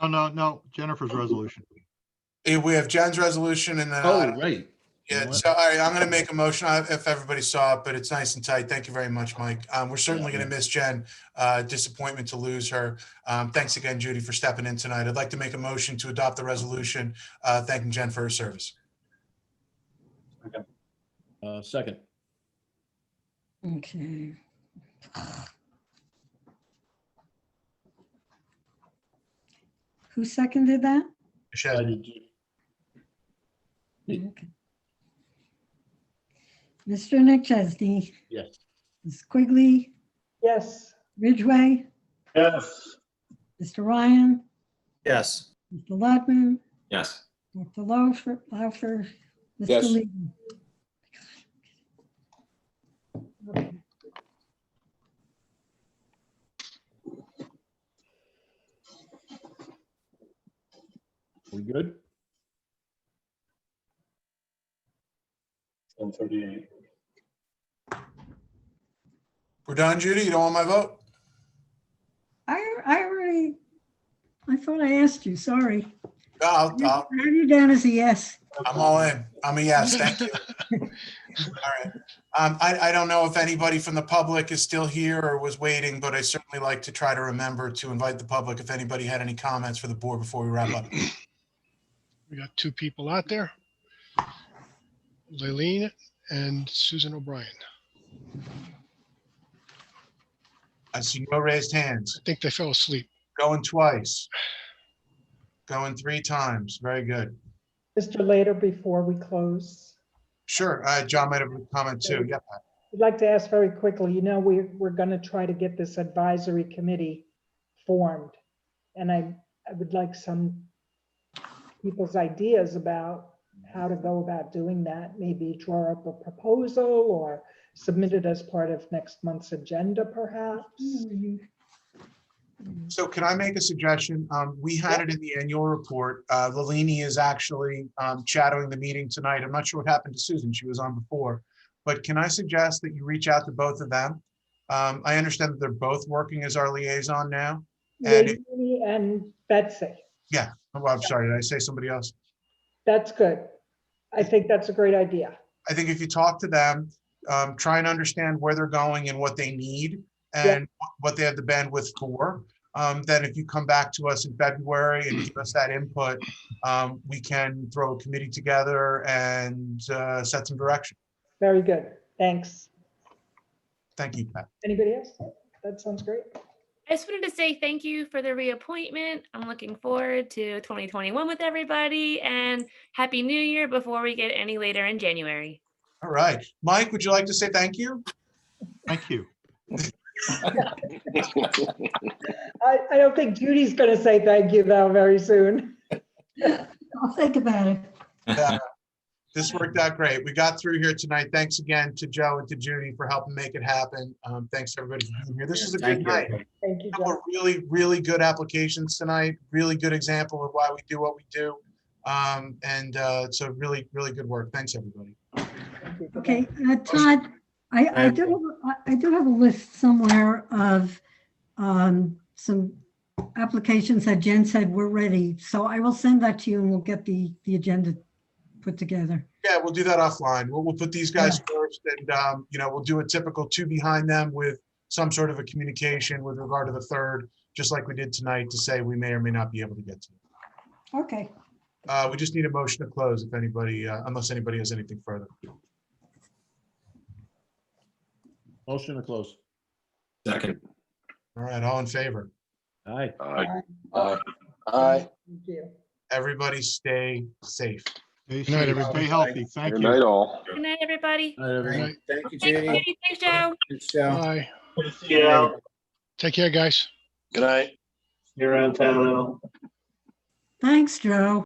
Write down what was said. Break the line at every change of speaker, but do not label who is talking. Oh, no, no, Jennifer's resolution.
Eh, We have Jen's resolution and then,
Oh,
I-
right.
yeah, so, all right, I'm gonna make a motion I- if everybody saw it, but it's nice and tight. Thank you very much, Mike. Um, we're certainly gonna miss Jen. Uh, disappointment to lose her. Um, thanks again, Judy, for stepping in tonight. I'd like to make a motion to adopt the resolution, uh, thanking Jen for her service.
Uh, second.
Okay. Who seconded that?
I
Shed,
did. Me.
Okay. Mr. Nick Chesney,
Yes.
Ms. Quigley,
yes.
Ridgway,
Yes.
Mr. Ryan,
Yes.
Mr. Ludman,
Yes.
Dr. Laufer, Laufer, Mr.
Yes.
Levy. Okay.
We good?
One thirty-eight.
we're done, Judy? You don't want my vote?
I, I already, I thought I asked you, sorry.
No, I'll,
I
I'll-
had you down as a yes.
I'm all in. I'm a yes, thank you. All right. Um, I, I don't know if anybody from the public is still here or was waiting, but I certainly like to try to remember to invite the public if anybody had any comments for the board before we wrap up.
We got two people out there. Leilene and Susan O'Brien.
I see no raised hands.
I think they fell asleep.
Going twice. Going three times. Very good.
Mr. Later, before we close,
Sure. Uh, John might have a comment too. Yeah.
I'd like to ask very quickly, you know, we're, we're going to try to get this advisory committee formed. And I, I would like some people's ideas about how to go about doing that. Maybe draw up a proposal or submit it as part of next month's agenda
Mm-hmm.
perhaps.
So can I make a suggestion? Um, we had it in the annual report. Uh, Lilini is actually, um, shadowing the meeting tonight. I'm not sure what happened to Susan. She was on before. But can I suggest that you reach out to both of them? Um, I understand that they're both working as our liaison now. And it-
Leilani And Betsy,
Oh, I'm sorry, did I say somebody else?
that's good. I think that's a great idea.
I think if you talk to them, um, try and understand where they're going and what they need
Yeah.
and wh- what they have the bandwidth for. Um, then if you come back to us in February and give us that input, um, we can throw a committee together and, uh, set some direction.
Very good. Thanks.
Thank you, Pat.
Anybody else? That sounds great.
I just wanted to say thank you for the reappointment. I'm looking forward to 2021 with everybody and Happy New Year before we get any later in January.
All right. Mike, would you like to say thank you?
Thank you.
I, I don't think Judy's gonna say thank you though very soon.
I'll think about it.
Yeah. This worked out great. We got through here tonight. Thanks again to Joe and to Judy for helping make it happen. Um, thanks everybody for being here. This is a good night.
Thank you,
couple
Joe.
of really, really good applications tonight, really good example of why we do what we do. Um, and, uh, so really, really good work. Thanks, everybody.
Thank you.
Okay, uh, Todd, I, I do, have a- I I do have a list somewhere of um, some applications that Jen said were ready. So I will send that to you and we'll get the, the agenda put together.
Yeah, we'll do that offline. We'll, we'll put these guys first and, um, you know, we'll do a typical two behind them with some sort of a communication with regard to the third, just like we did tonight to say we may or may not be able to get to.
Okay.
Uh, we just need a motion to close if anybody, uh, unless anybody has anything further.
Motion to close.
Second.
All right, all in favor?
Aye.
Aye. Aye.
Thank you.
Everybody stay safe.
Stay
Good night,
safe,
everybody.
Stay healthy. Thank
Good
you.
night, all.
Good night, everybody.
Aye, everyone.
Right.
Thank you,
Thanks,
Judy.
Judy. Thanks, Joe.
Thanks, Joe.
Bye.
See you out.
Take care, guys.
Good night.
You're around town. Al.
Thanks, Joe.